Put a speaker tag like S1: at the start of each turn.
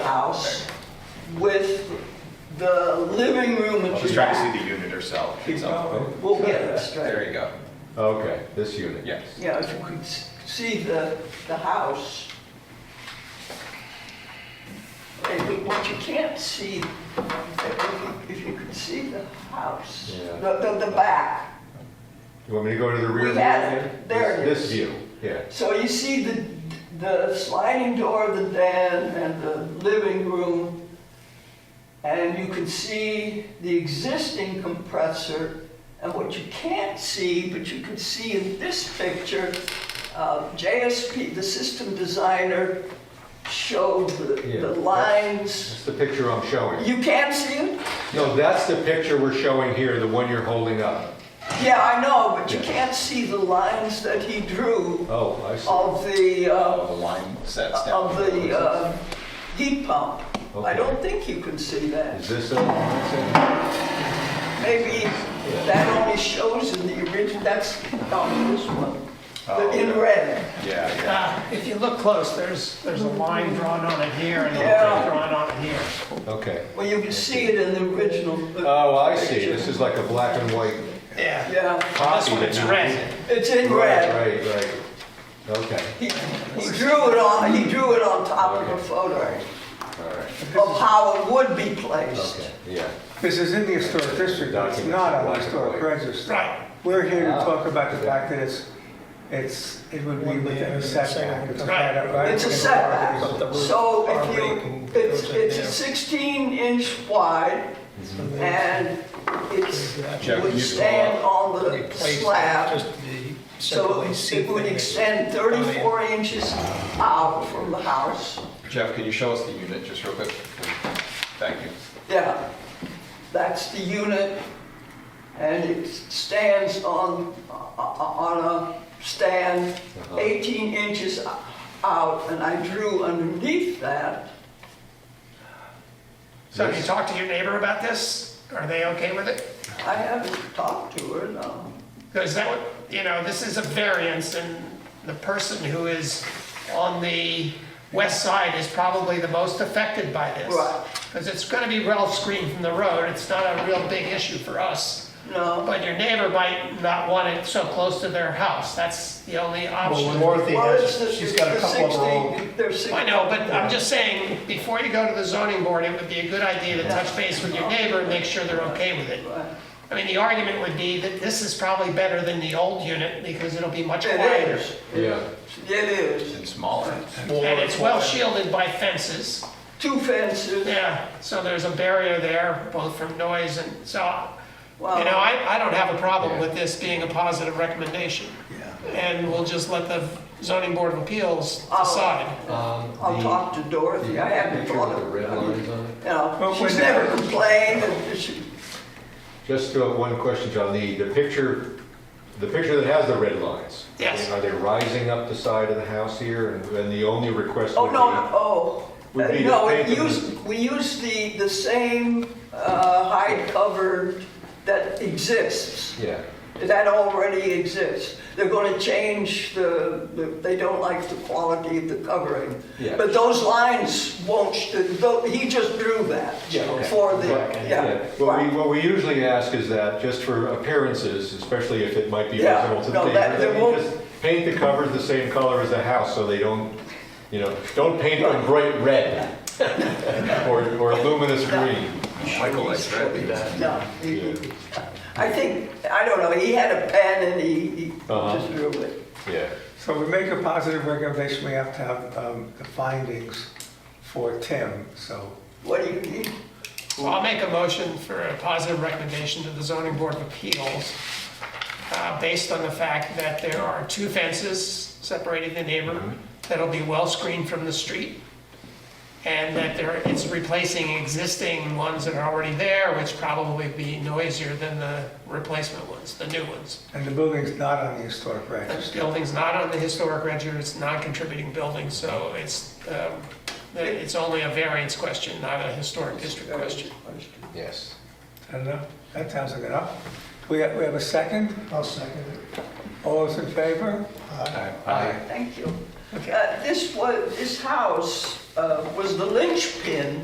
S1: house with the living room at
S2: She's
S1: the
S2: trying to
S1: back.
S2: see the unit herself. "Oh, itself.
S1: We'll get it straight.
S2: There you go.
S3: Okay, this unit.
S2: Yes.
S1: Yeah, if you could s- see the, the house. If you- But you can't see, if you- if you could see the house,
S3: Yeah.
S1: the, the- the back.
S3: You want me to go to the rear?
S1: We
S3: view
S1: had it.
S3: again?
S1: There it
S3: This-
S1: is.
S3: This view, yeah.
S1: So you see the, the sliding door of the den and the living room, and you can see the existing compressor, and what you can't see, but you can see in this picture, uh, JSP, the system designer, showed the,
S3: Yeah,
S1: the
S3: that's-
S1: lines.
S3: That's the picture I'm showing.
S1: You can't see it?
S3: No, that's the picture we're showing here, the one you're holding up.
S1: Yeah, I know, but you
S3: Yeah.
S1: can't see the lines that he drew
S3: Oh, I see.
S1: of the, uh,
S2: All the line sets down.
S1: of the uh, heat pump. I don't think you can see that.
S3: Is this a, that's
S1: Maybe that only shows in the original, that's, no, this one,
S3: Oh,
S1: The- in red.
S2: Yeah, yeah.
S4: Ah, If you look close, there's, there's a line drawn on it here and a
S1: Yeah.
S4: line drawn on it here.
S3: it? okay.
S1: Well, you can see it in the original.
S3: Oh, I see. This is like a black and white
S4: Yeah.
S1: Yeah,
S4: This
S3: copy.
S4: one,
S3: that
S4: it's
S3: you-
S4: red.
S1: it's in red.
S3: Right, right, right. Okay,
S1: He he drew it on, he drew it on top of a photo
S3: all right,
S1: of how it would be placed.
S3: okay, yeah.
S5: This is in the historic district, it's not on the historic register.
S4: Right.
S5: We're here to talk about the fact that it's, it's, it would be within a setback. It's right up- right
S1: It's a
S5: within the
S1: setback.
S5: boundaries.
S1: So if you, it's, it's a 16 inch wide and it's,
S2: Jeff,
S1: would
S2: you
S1: stand
S2: draw-
S1: on the slab. So it would extend 34 inches out from the house.
S2: Jeff, can you show us the unit just real quick? Thank you.
S1: Yeah, that's the unit and it stands on, on a stand 18 inches out and I drew underneath that
S4: So have you talked to your neighbor about this? Are they okay with it?
S1: I haven't talked to her, no.
S4: Because that would, you know, this is a variance and the person who is on the west side is probably the most affected by this.
S1: Right.
S4: Because it's gonna be well screened from the road, it's not a real big issue for us.
S1: No.
S4: But your neighbor might not want it so close to their house, that's the only option.
S6: Well, Dorothy
S1: Well, it's
S6: has,
S1: the-
S6: she's got a
S1: it's the
S6: couple of her
S1: 16
S6: own.
S1: They're six.
S4: I know, but I'm just saying, before you go to the zoning board, it would be a good idea to touch base with your neighbor and make sure they're okay with it. I mean, the argument would be that this is probably better than the old unit because it'll be much
S1: It
S4: quieter.
S1: is,
S3: Yeah,
S1: it is.
S2: And smaller.
S4: And it's well shielded by fences.
S1: Two fences,
S4: Yeah, so there's a barrier there, both from noise and, so, you know,
S1: Wow.
S4: I, I don't have a problem with this being a positive recommendation. And we'll just let the zoning board of appeals
S1: Oh.
S4: decide.
S3: Um,
S1: I'll talk to Dorothy, I haven't thought of,
S3: red lines on it?
S1: you know,
S5: Well,
S1: she's
S5: when-
S4: uh,
S1: never complained, and she,
S3: Just uh, one question, John, the, the picture, the picture that has the red lines.
S4: Yes.
S3: Are they rising up the side of the house here, and and the only request
S1: oh,
S3: would be?
S1: no, no, oh.
S3: Would
S1: Uh,
S3: be
S1: No,
S3: to
S1: it
S3: paint them-
S1: used, we used the, the same, uh, hide cover that exists.
S3: Yeah,
S1: That already exists. They're going to change the, the- they don't like the quality of the covering.
S3: Yeah.
S1: But those lines won't, sh- tho- he just drew that
S3: Yeah, okay.
S1: for the,
S3: yeah.
S1: yeah.
S3: What
S1: right.
S3: we, what we usually ask is that, just for appearances, especially if it might be
S1: Yeah,
S3: visible to the
S1: no,
S3: neighbor,
S1: that-
S3: that
S1: they
S3: we
S1: won't-
S3: just paint the covers the same color as the house, so they don't, you know, don't paint them bright red or, or luminous green.
S2: Michael likes red.
S1: No, he- he- I think, I don't know, he had a pen and he, he
S3: Uh-huh.
S1: just drew it.
S3: Yeah.
S5: So we make a positive recommendation, we have to have um, the findings for Tim, so.
S1: What do you need?
S4: So I'll make a motion for a positive recommendation to the zoning board of appeals, uh, based on the fact that there are two fences separating the neighbor that'll be well screened from the street, and that there, it's replacing existing ones that are already there, which probably be noisier than the replacement ones, the new ones.
S5: And the building's not on the historic
S4: The
S5: register.
S4: building's not on the historic register, it's non-contributing building, so it's, um, it's only a variance question, not a historic district question.
S3: Yes.
S5: I don't know, that sounds like enough. We have, we have a second?
S6: I'll second it.
S5: All those in favor?
S1: Thank you. Uh, This was, this house uh, was the linchpin